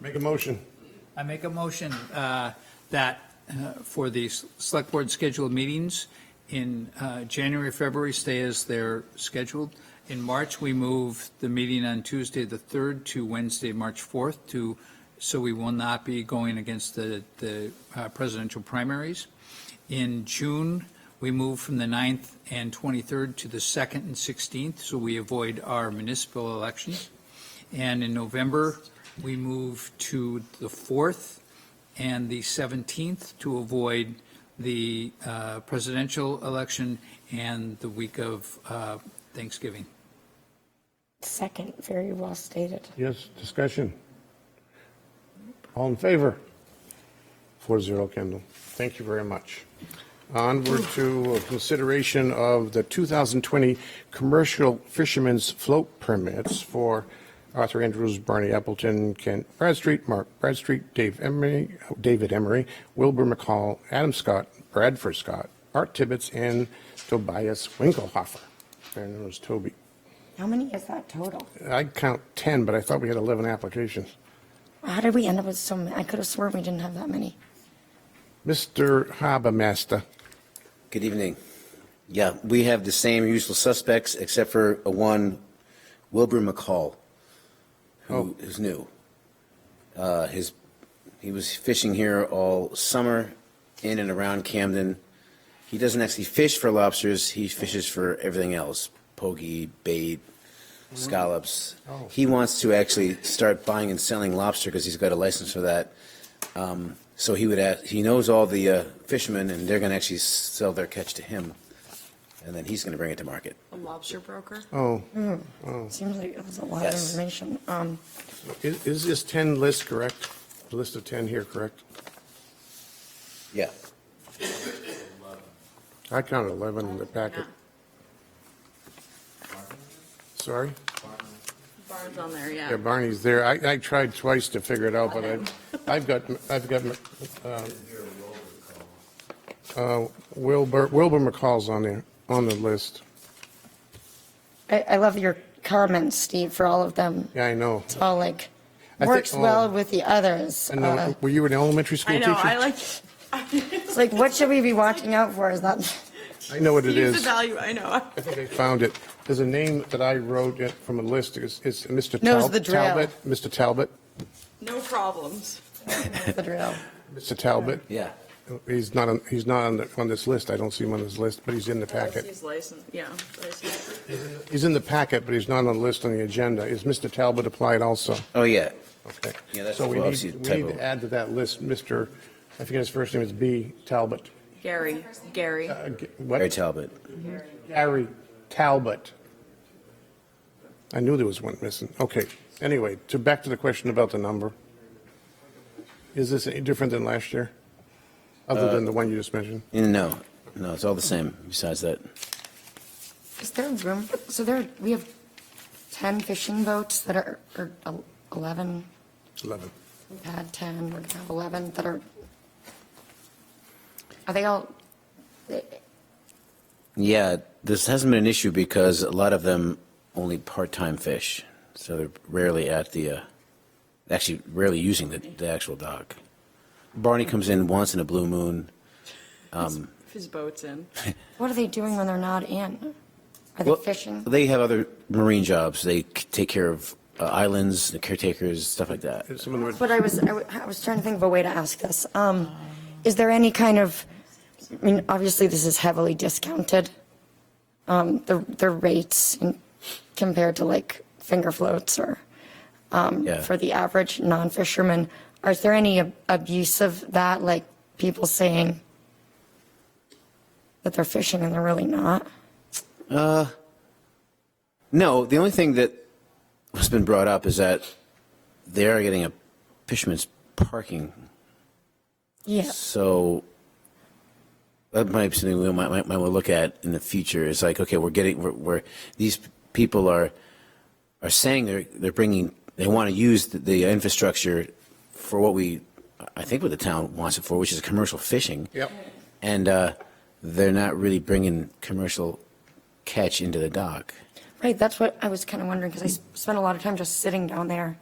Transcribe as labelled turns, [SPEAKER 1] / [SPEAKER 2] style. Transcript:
[SPEAKER 1] Make a motion.
[SPEAKER 2] I make a motion uh, that uh, for the s- select board scheduled meetings in uh, January, February, stay as they're scheduled. In March, we move the meeting on Tuesday, the 3rd, to Wednesday, March 4th, to, so we will not be going against the, the uh, presidential primaries. In June, we move from the 9th and 23rd to the 2nd and 16th, so we avoid our municipal elections. And in November, we move to the 4th and the 17th to avoid the uh, presidential election and the week of uh, Thanksgiving.
[SPEAKER 3] Second, very well stated.
[SPEAKER 1] Yes, discussion. All in favor? Four zero, Kendall. Thank you very much. Onward to consideration of the 2020 commercial fishermen's float permits for Arthur Andrews, Barney Appleton, Kent Bradstreet, Mark Bradstreet, Dave Emery, David Emery, Wilbur McCall, Adam Scott, Bradford Scott, Art Tibbetts, and Tobias Winkelhofer. Their name was Toby.
[SPEAKER 3] How many is that total?
[SPEAKER 1] I count 10, but I thought we had 11 applications.
[SPEAKER 3] How did we end up with so many? I could have sworn we didn't have that many.
[SPEAKER 1] Mr. Habermaster,
[SPEAKER 4] Good evening. Yeah, we have the same usual suspects except for a one, Wilbur McCall, who is new. Uh, His, he was fishing here all summer in and around Camden. He doesn't actually fish for lobsters, he fishes for everything else, pokey, bait, scallops.
[SPEAKER 1] Oh.
[SPEAKER 4] He wants to actually start buying and selling lobster because he's got a license for that. Um, So he would, ask- he knows all the uh, fishermen, and they're going to actually sell their catch to him, and then he's going to bring it to market.
[SPEAKER 5] A lobster broker?
[SPEAKER 1] oh,
[SPEAKER 3] Seems like it was a lot of
[SPEAKER 4] Yes.
[SPEAKER 3] information. Um,
[SPEAKER 1] i- is this 10 list correct? The list of 10 here correct?
[SPEAKER 4] Yeah.
[SPEAKER 1] I counted 11 in the packet. Sorry?
[SPEAKER 5] Bar's on there,
[SPEAKER 1] Yeah,
[SPEAKER 5] yeah.
[SPEAKER 1] Barney's there. I, I tried twice to figure it out, but I, I've got, I've got, um, uh, Wilbur, Wilbur McCall's on there, on the list.
[SPEAKER 3] I, I love your comments, Steve, for all of them.
[SPEAKER 1] Yeah, I know.
[SPEAKER 3] It's all like,
[SPEAKER 1] I think-
[SPEAKER 3] works well
[SPEAKER 1] oh.
[SPEAKER 3] with the others.
[SPEAKER 1] And
[SPEAKER 3] Uh,
[SPEAKER 1] the- were you an elementary school
[SPEAKER 5] Uh-huh. I
[SPEAKER 1] teacher?
[SPEAKER 5] know, I like.
[SPEAKER 3] It's like, what should we be watching out for? Is that,
[SPEAKER 1] I know what it
[SPEAKER 5] Steve's
[SPEAKER 1] is.
[SPEAKER 5] the value, I know.
[SPEAKER 1] I think I found it. There's a name that I wrote it from a list. It's, it's Mr.
[SPEAKER 3] Knows
[SPEAKER 1] Tal-
[SPEAKER 3] the drill.
[SPEAKER 1] Talbot. Mr. Talbot.
[SPEAKER 5] No problems.
[SPEAKER 3] the drill.
[SPEAKER 1] Mr. Talbot.
[SPEAKER 4] Yeah.
[SPEAKER 1] He's not, on- he's not on, the- on this list. I don't see him on this list, but he's in the packet.
[SPEAKER 5] He's licensed, yeah. licensed.
[SPEAKER 1] He's in the packet, but he's not on the list on the agenda. Is Mr. Talbot applied also?
[SPEAKER 4] Oh, yeah.
[SPEAKER 1] Okay.
[SPEAKER 4] Yeah, that's
[SPEAKER 1] So we
[SPEAKER 4] well,
[SPEAKER 1] need,
[SPEAKER 4] see,
[SPEAKER 1] we need
[SPEAKER 4] typo.
[SPEAKER 1] to add to that list, Mr., I forget his first name, it's B. Talbot.
[SPEAKER 5] Gary, Gary.
[SPEAKER 1] Uh, G-
[SPEAKER 4] Barry
[SPEAKER 1] What?
[SPEAKER 4] Talbot.
[SPEAKER 1] Gary Talbot. I knew there was one missing. Okay. Anyway, to, back to the question about the number. Is this any different than last year? Other than the one you just mentioned?
[SPEAKER 4] No, no, it's all the same besides that.
[SPEAKER 3] Is there room? So there, we have 10 fishing boats that are, or 11,
[SPEAKER 1] 11.
[SPEAKER 3] we've had 10, we're going to have 11 that are, are they all,
[SPEAKER 4] Yeah, this hasn't been an issue because a lot of them only part-time fish, so they're rarely at the, uh, actually rarely using the, the actual dock. Barney comes in once in a blue moon.
[SPEAKER 5] If his boat's in.
[SPEAKER 3] What are they doing when they're not in? Are they
[SPEAKER 4] Well,
[SPEAKER 3] fishing?
[SPEAKER 4] They have other marine jobs. They c- take care of uh, islands, the caretakers, stuff like that.
[SPEAKER 1] Some of them are-
[SPEAKER 3] But I was, I wa- I was trying to think of a way to ask this. Um, Is there any kind of, I mean, obviously, this is heavily discounted, um, the, the rates in- compared to like finger floats or
[SPEAKER 4] Yeah.
[SPEAKER 3] for the average non-fisherman. Are there any ab- abuse of that, like people saying that they're fishing and they're really not?
[SPEAKER 4] No, the only thing that has been brought up is that they are getting a fisherman's parking,
[SPEAKER 3] Yeah,
[SPEAKER 4] so that might be something we might, might, might want to look at in the future. It's like, okay, we're getting, we're, we're these people are, are saying they're, they're bringing, they want to use the, the infrastructure for what we, I think what the town wants it for, which is commercial fishing.
[SPEAKER 1] Yep.
[SPEAKER 4] And, uh, they're not really bringing commercial catch into the dock.
[SPEAKER 3] right, that's what I was kind of wondering, because I s- spent a lot of time just sitting down there